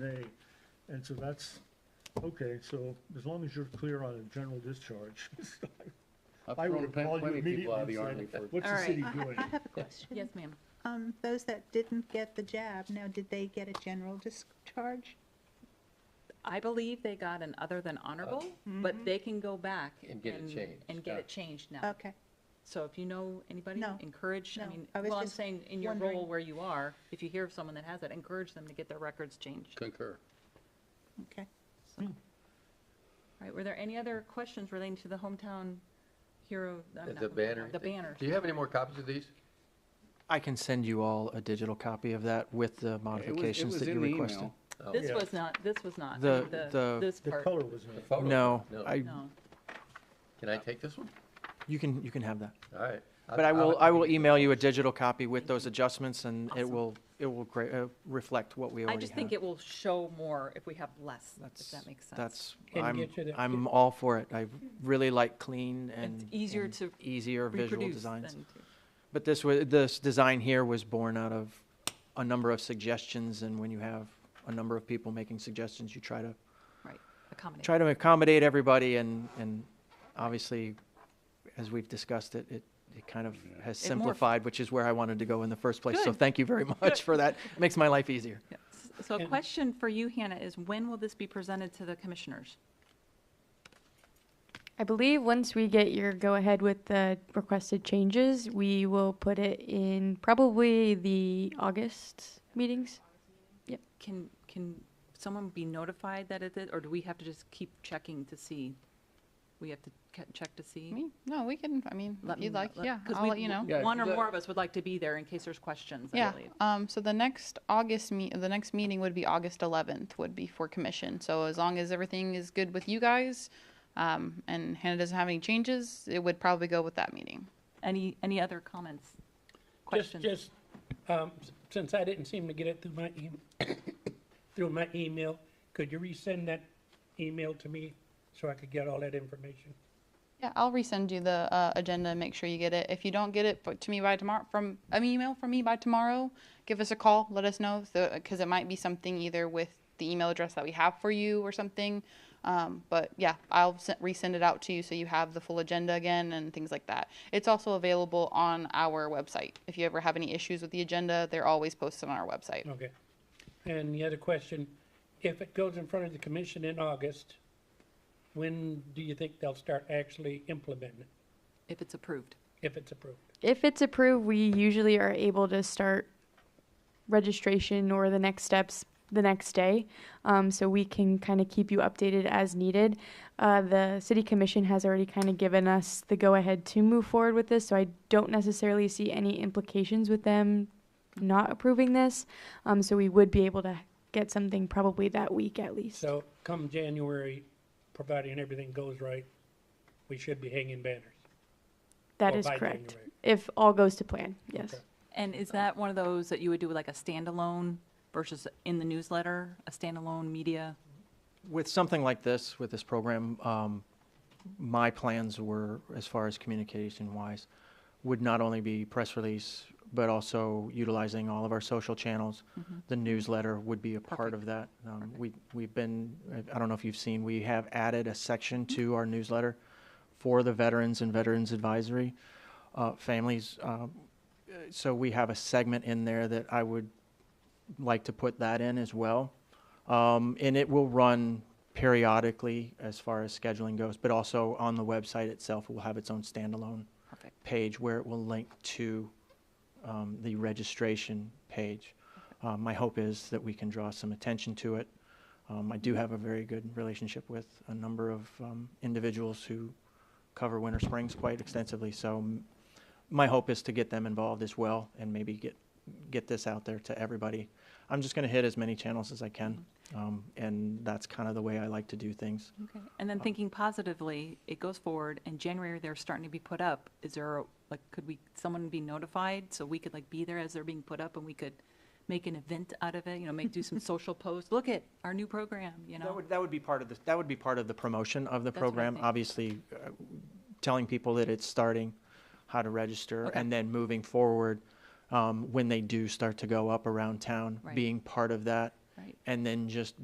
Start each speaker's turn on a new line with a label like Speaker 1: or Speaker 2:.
Speaker 1: nay. And so that's, okay, so as long as you're clear on a general discharge,
Speaker 2: I've
Speaker 1: I
Speaker 2: thrown
Speaker 1: would
Speaker 2: pl-
Speaker 1: call you
Speaker 2: plenty of people out of
Speaker 1: immediately
Speaker 2: the army
Speaker 1: and
Speaker 2: for.
Speaker 1: said, what's
Speaker 3: All
Speaker 1: the
Speaker 3: right.
Speaker 1: city
Speaker 4: I-
Speaker 1: doing?
Speaker 4: I I have a question.
Speaker 3: Yes, ma'am.
Speaker 4: Um, those that didn't get the jab, now, did they get a general discharge?
Speaker 3: I believe they got an other than honorable, but they can go back.
Speaker 2: And get it changed,
Speaker 3: And get
Speaker 2: yeah.
Speaker 3: it changed now.
Speaker 4: Mm-hmm. Okay,
Speaker 3: So if you know anybody,
Speaker 4: No,
Speaker 3: encourage, I
Speaker 4: no.
Speaker 3: mean,
Speaker 4: I was
Speaker 3: well, I'm
Speaker 4: just
Speaker 3: saying in your
Speaker 4: wondering.
Speaker 3: role where you are, if you hear of someone that has it, encourage them to get their records changed.
Speaker 2: Concur.
Speaker 4: okay.
Speaker 3: All right, were there any other questions relating to the hometown hero? I'm not
Speaker 2: The
Speaker 3: hometown,
Speaker 2: banner.
Speaker 3: The banner.
Speaker 2: Do you have any more copies of these?
Speaker 5: I can send you all a digital copy of that with the modifications that you requested.
Speaker 2: Oh,
Speaker 3: This
Speaker 1: Yeah.
Speaker 3: was not, this was not,
Speaker 5: The-
Speaker 3: I mean, the,
Speaker 5: the-
Speaker 3: this
Speaker 1: The
Speaker 3: part.
Speaker 1: color was
Speaker 2: the
Speaker 1: not.
Speaker 2: photo?
Speaker 5: No,
Speaker 2: No.
Speaker 5: I,
Speaker 3: No.
Speaker 2: Can I take this one?
Speaker 5: you can, you can have that.
Speaker 2: All right.
Speaker 5: But I will, I will email you a digital copy with those adjustments and it will, it will gra- uh, reflect what we
Speaker 3: I
Speaker 5: already
Speaker 3: just think it
Speaker 5: have.
Speaker 3: will show more if we have less, if
Speaker 5: That's-
Speaker 3: that makes sense.
Speaker 5: That's,
Speaker 6: Can you
Speaker 5: I'm,
Speaker 6: get you the-
Speaker 5: I'm all for it. I really like clean and.
Speaker 3: easier
Speaker 5: and
Speaker 3: to
Speaker 5: Easier visual
Speaker 3: Reproduce
Speaker 5: designs.
Speaker 3: than to-
Speaker 5: But this was, this design here was born out of a number of suggestions and when you have a number of people making suggestions, you try to
Speaker 3: Right, accommodate.
Speaker 5: try to accommodate everybody and, and obviously, as we've discussed it, it, it kind of has
Speaker 3: It morphed.
Speaker 5: simplified, which is where I wanted to go in the first place. So
Speaker 3: Good.
Speaker 5: thank you very much for that. Makes my life easier.
Speaker 3: Yeah. S- So a
Speaker 6: And-
Speaker 3: question for you, Hannah, is when will this be presented to the commissioners?
Speaker 7: I believe once we get your go ahead with the requested changes, we will put it in probably the August meetings.
Speaker 3: Can, can someone be notified that it is, or do we have to just keep checking to see? We have to ca- check to see?
Speaker 8: Me? No, we can, I mean,
Speaker 3: Let
Speaker 8: if
Speaker 3: me
Speaker 8: you'd
Speaker 3: know-
Speaker 8: like, yeah,
Speaker 3: 'cause
Speaker 8: I'll
Speaker 3: we-
Speaker 8: let you know.
Speaker 2: Yeah,
Speaker 3: One or
Speaker 2: the-
Speaker 3: more of us would like to be there in case there's questions, I
Speaker 8: Yeah,
Speaker 3: believe.
Speaker 8: um, so the next August meet, the next meeting would be August eleventh would be for commission. So as long as everything is good with you guys, um, and Hannah doesn't have any changes, it would probably go with that meeting.
Speaker 3: Any, any other comments?
Speaker 6: Just,
Speaker 3: Questions?
Speaker 6: just, um, s- since I didn't seem to get it through my e- through my email, could you resend that email to me so I could get all that information?
Speaker 8: Yeah, I'll resend you the, uh, agenda and make sure you get it. If you don't get it, but to me by tomorrow, from, an email from me by tomorrow, give us a call, let us know, so, cause it might be something either with the email address that we have for you or something. Um, but yeah, I'll se- resend it out to you so you have the full agenda again and things like that. It's also available on our website. If you ever have any issues with the agenda, they're always posted on our website.
Speaker 6: Okay. And the other question, if it goes in front of the commission in August, when do you think they'll start actually implementing it,
Speaker 3: If it's approved.
Speaker 6: if it's approved?
Speaker 7: If it's approved, we usually are able to start registration or the next steps the next day. Um, so we can kind of keep you updated as needed. Uh, the city commission has already kind of given us the go ahead to move forward with this. So I don't necessarily see any implications with them not approving this. Um, so we would be able to get something probably that week at least.
Speaker 6: So come January, providing everything goes right, we should be hanging banners.
Speaker 7: that
Speaker 6: or
Speaker 7: is
Speaker 6: by
Speaker 7: correct.
Speaker 6: January.
Speaker 7: If all goes to plan, yes.
Speaker 6: Okay.
Speaker 3: And is that one of those that you would do like a standalone versus in the newsletter, a standalone media?
Speaker 5: With something like this, with this program, um, my plans were, as far as communication wise, would not only be press release, but also utilizing all of our social channels. The newsletter would be a part
Speaker 3: Perfect.
Speaker 5: of that. Um, We, we've been, I- I don't know if you've seen, we have added a section to our newsletter for the veterans and Veterans Advisory uh, families. Um, uh, So we have a segment in there that I would like to put that in as well. Um, And it will run periodically as far as scheduling goes, but also on the website itself, it will have its own standalone
Speaker 3: Perfect.
Speaker 5: page where it will link to um, the registration page. Uh, My hope is that we can draw some attention to it. Um, I do have a very good relationship with a number of um, individuals who cover Winter Springs quite extensively, so m- my hope is to get them involved as well and maybe get, get this out there to everybody. I'm just going to hit as many channels as I can, um, and that's kind of the way I like to do things.
Speaker 3: Okay, and then thinking positively, it goes forward, and January, they're starting to be put up. Is there, a- like, could we, someone be notified, so we could, like, be there as they're being put up, and we could make an event out of it, you know, make, do some social posts, look at our new program, you
Speaker 5: That
Speaker 3: know?
Speaker 5: would, that would be part of the, that would be part of the promotion of the
Speaker 3: That's what I
Speaker 5: program,
Speaker 3: think.
Speaker 5: obviously, uh, telling people that it's starting, how to register, and then moving forward, um, when they do start to go up around town,
Speaker 3: Right.
Speaker 5: being part of that.
Speaker 3: Right.
Speaker 5: and then just